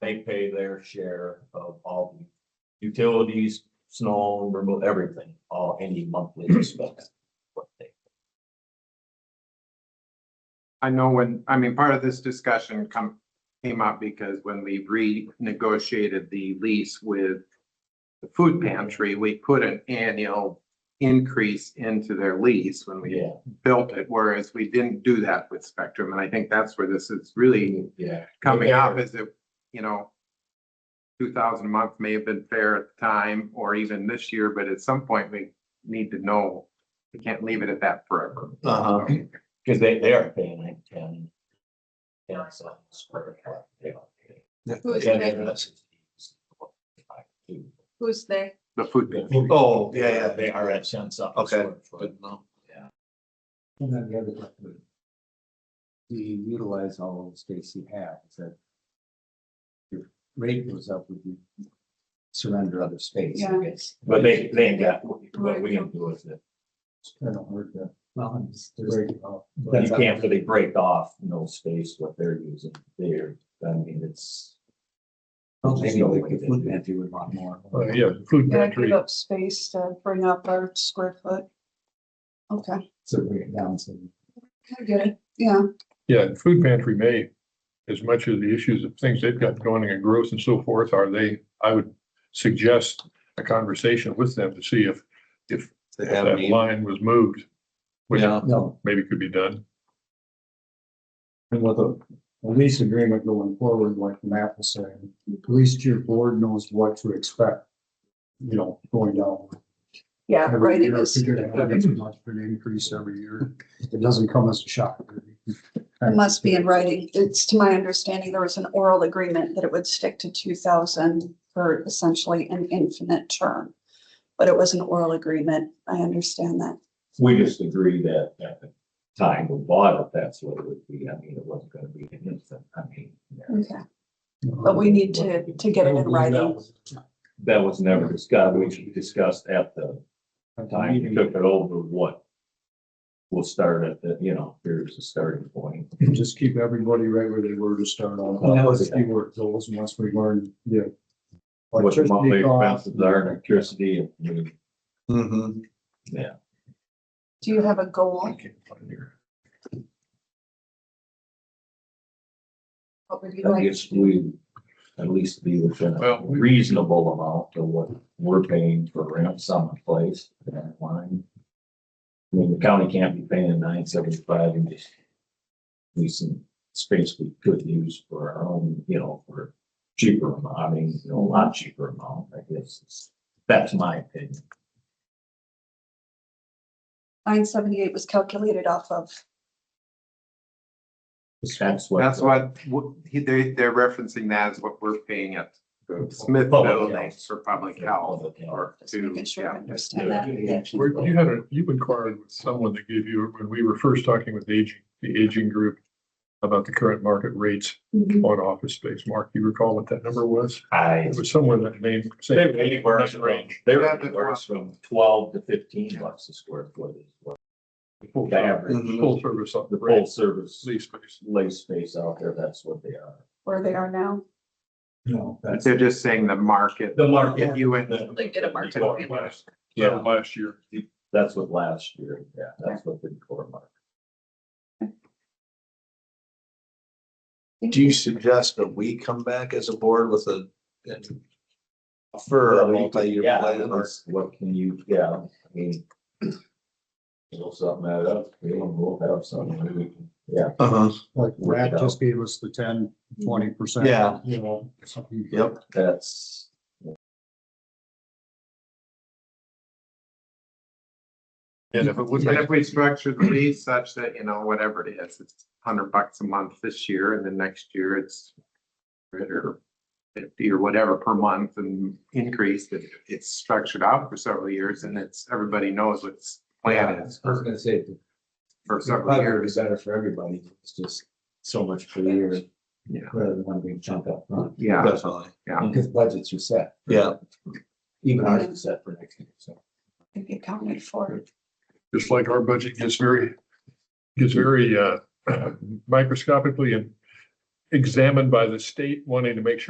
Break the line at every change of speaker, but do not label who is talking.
they pay their share of all the utilities, snow, removal, everything, all any monthly
Hmm.
expense. what they-
I know when, I mean, part of this discussion come, came up because when we renegotiated the lease with the food pantry, we put an annual increase into their lease when we
Yeah,
built it, whereas we didn't do that with Spectrum. And I think that's where this is really
yeah.
coming up is that, you know, two thousand a month may have been fair at the time, or even this year, but at some point we need to know. We can't leave it at that forever.
Uh-huh, cause they, they are paying like ten. Ten cents per foot, yeah.
Who's
Yeah,
they?
that's-
Who's they?
The food. pantry.
Oh, yeah, yeah.
They are at ten cents. per
Okay.
square foot.
Good to know.
And then the other question. Do you utilize all the space you have? Is that? Your rate goes up with you. Surrender other space.
Yeah.
But they, they ain't got, what we can do is that
Kind of hard to. Well, it's.
you can't really break off no space what they're using there. I mean, it's.
Maybe like the food pantry would want more.
Oh, yeah, food
Yeah, give
pantry.
up space to bring up our square foot. Okay,
So bring it down so.
I get it, yeah,
Yeah, and food pantry may, as much of the issues of things they've got going and growth and so forth, are they, I would suggest a conversation with them to see if, if
They have
that
any,
line was moved, which
yeah,
No,
maybe could be done.
and with a a lease agreement going forward, like Matt was saying, at least your board knows what to expect. You know, going down.
yeah,
Every
right, it
year,
is,
if you're gonna have this much of an increase every year. It doesn't come as a shock.
it must be in writing. It's to my understanding, there was an oral agreement that it would stick to two thousand for essentially an infinite term. But it was an oral agreement, I understand that.
We just agreed that at the time we bought it, that's what it would be. I mean, it wasn't gonna be an instant, I mean. yeah.
Okay, but we need to, to get it in writing.
That was never discussed, we discussed at the time you took it over, what? We'll start at the, you know, here's the starting point.
Just keep everybody right where they were to start on.
Well, that was-
Keyword goals, and once we learn, yeah.
What the monthly
Electricity costs.
expenses are, electricity, and I mean,
mhm.
Do you have a goal? What would you
I
like?
guess we at least be within a
Well, we-
reasonable amount of what we're paying for rent someplace in that line. I mean, the county can't be paying nine seventy-five and just leasing space we could use for our own, you know, for cheaper amount, I mean, you know, a lot cheaper amount, I guess. is- That's my opinion.
Nine seventy-eight was calculated off of,
That's what.
That's what, what- he- they, they're referencing that as what we're paying at the Smith
Public
Building
health.
for public health or
just
to,
making sure I
yeah.
understand that.
Where you had a, you inquired with someone that gave you, when we were first talking with aging, the aging group about the current market rates
Mhm.
on office space. Mark, you recall what that number was?
I.
It was somewhere in that name. same-
They were anywhere
same
from,
range.
they were anywhere from twelve to fifteen bucks a square foot. is what
Full
The
service-
average,
full service on
the
the
full
rates,
service
lease space.
lease space out there, that's what they are.
where they are now.
No,
But
that's.
They're just saying the market.
The market.
If you went,
They did a market rate.
Yeah, last year.
That's what last year, yeah, that's what the core market.
Do you suggest that we come back as a board with a for a multi-year
Yeah,
plan or?
that's What can you, yeah, I mean. You know, something that up, we will have something, that we can, yeah,
Uh-huh,
Like Matt just gave us the 10 20 percent.
Yeah.
You know, something.
yep,
that's.
And if it would
and
make,
if we structure the lease such that, you know, whatever it is, it's hundred bucks a month this year and then next year it's or fifty or whatever per month and increase that it's structured out for several years and it's, everybody knows what its plan is
I was
for,
gonna say, the
for several
probably
years.
is better for everybody. It's just so much per year.
Yeah.
Rather than one big chunk up front,
Yeah.
definitely,
because budgets are set.
yeah.
Even ours is set for next year, so.
If you counted for,
just like our budget gets very, gets very uh microscopically and examined by the state wanting to make sure